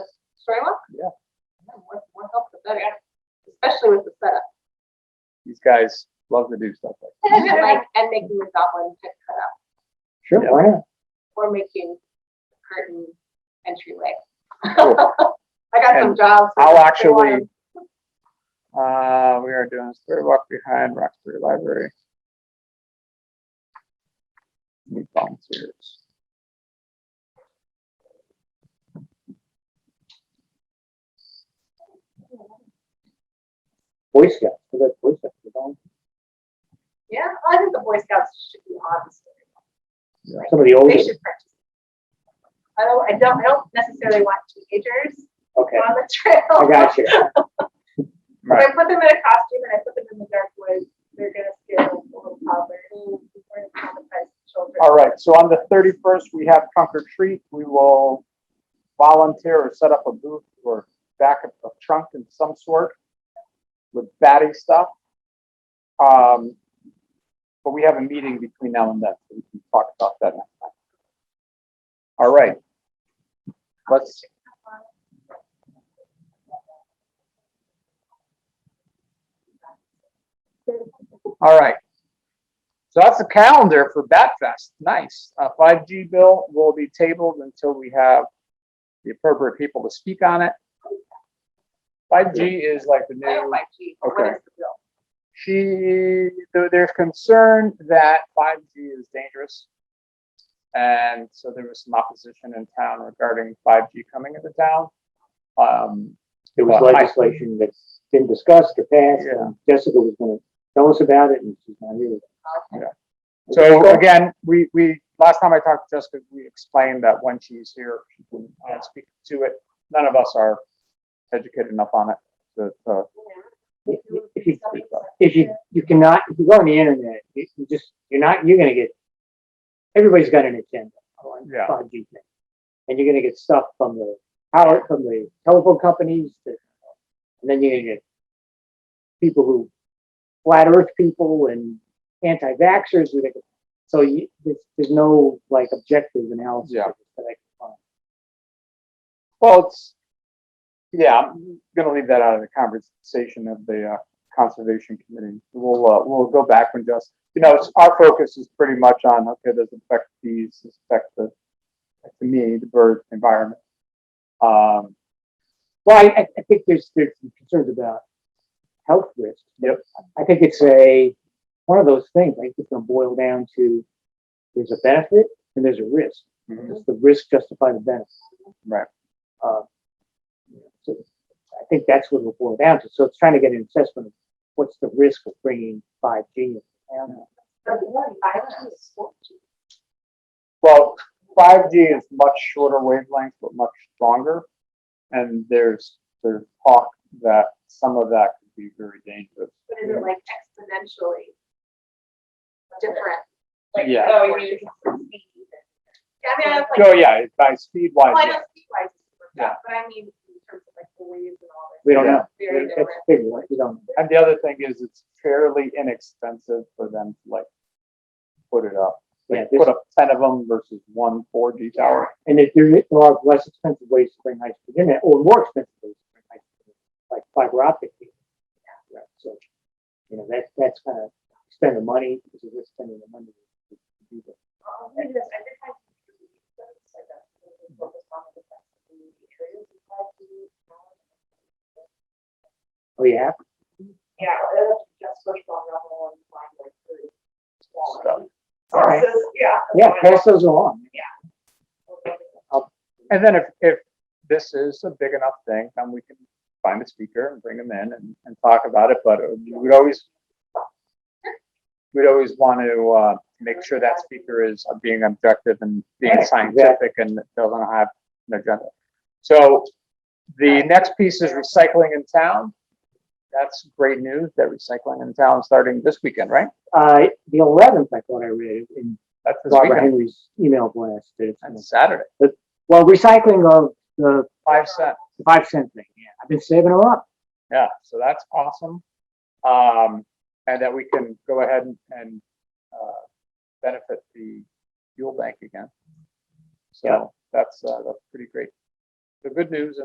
very well. Yeah. More, more help the better, especially with the setup. These guys love to do stuff like Like, and making the goblin pit cut up, Sure, why not? or making the curtain entryway. Cool. I got some And jobs. I'll with the actually- lawyers. Uh, we are doing a story walk behind Roxbury Library. Need volunteers. Boy Scouts, we got Boy Scouts, we don't- Yeah, I think the Boy Scouts should be on this. some of the Oh, older, They should practice. I don't, I don't, I don't necessarily want teenagers okay, on the trail. I got you. If I put them in a costume and I put them in the dark woods, they're gonna scare the little toddlers. We're gonna traumatize the children. Mm. All right, so on the thirty-first, we have trunk or treat. We will volunteer or set up a booth or back up a trunk in some sort with batty stuff. Um, but we have a meeting between now and then, so we can talk about that next time. All right. Let's. All right. So that's the calendar for Bat Fest. Nice. Uh, 5G bill will be tabled until we have the appropriate people to speak on it. 5G is like the I don't new, like cheese, but what Okay. is the bill? she, there- there's concern that 5G is dangerous. And so there was some opposition in town regarding 5G coming into town. Um, There was Well, I- legislation that's been discussed or passed, Yeah. and Jessica was gonna tell us about it, and she's not here. Okay. So again, we, we, last time I talked to Jessica, we explained that when she's here, she can uh, speak to it. None of us are educated enough on it to, to, If you, if you, you cannot, if you go on the internet, you you just, you're not, you're gonna get, everybody's got an agenda on Yeah. 5G thing. And you're gonna get stuff from the power, from the telephone companies, that- and then you're gonna get people who, flat earth people and anti-vaxxers, who they- so you, there's, there's no like objective analysis Yeah. that I can find. well, it's, yeah, I'm gonna leave that out of the conversation of the, uh, conservation committee. We'll, uh, we'll go back when just, you know, it's- our focus is pretty much on, okay, does it affect these, does it affect the, to me, the bird environment. Um, Well, I, I- I think there's, there's some concerns about health risks. Yep. I think it's a, one of those things, I think it's gonna boil down to, there's a benefit and there's a risk. Mhm. Does the risk justify the benefit? Right. Uh, so I think that's what it'll boil down to. So it's trying to get an assessment of what's the risk of bringing five G. Well, five G is much shorter wavelength, but much stronger. And there's, there's talk that some of that could be very dangerous. But is it like exponentially different? Like, Yeah. Oh, you mean. Yeah, I mean, I was like. So yeah, by speed wise, Well, I yeah. don't see why it's super Yeah. fast, but I mean, in terms of like the waves and all that. We don't know. Very That's different. the thing, right? We don't know. and the other thing is it's fairly inexpensive for them to like put it up. Yeah, Like this- put up ten of them versus one four G tower. And if there there are less expensive ways to bring high speed internet, or more expensive ways to bring high speed internet, like fiber optic. cable. Right, So, you know, that's, that's kind of spend the money, because you're just spending the money. to do that. Oh, yeah, Yeah, that's just first on level and find like three Stuff. smaller. All right. Yeah. yeah, pass those along. And then if, if this is a big enough thing, then we can find a speaker and bring them in and, and talk about it, but we'd always, we'd always want to, uh, make sure that speaker is being objective and being Right, scientific and doesn't have an agenda. So the next piece is recycling in town. That's great news, that recycling in town starting this weekend, right? Uh, the eleventh, I thought I read in That's this Barbara weekend, Henry's email blast. that it's- that's Saturday, Well, recycling of the five cents. five cent thing, yeah, I've been saving them up. Yeah, so that's awesome. Um, and that we can go ahead and, and, uh, benefit the fuel bank again. Yeah. So that's, uh, that's pretty great. The good news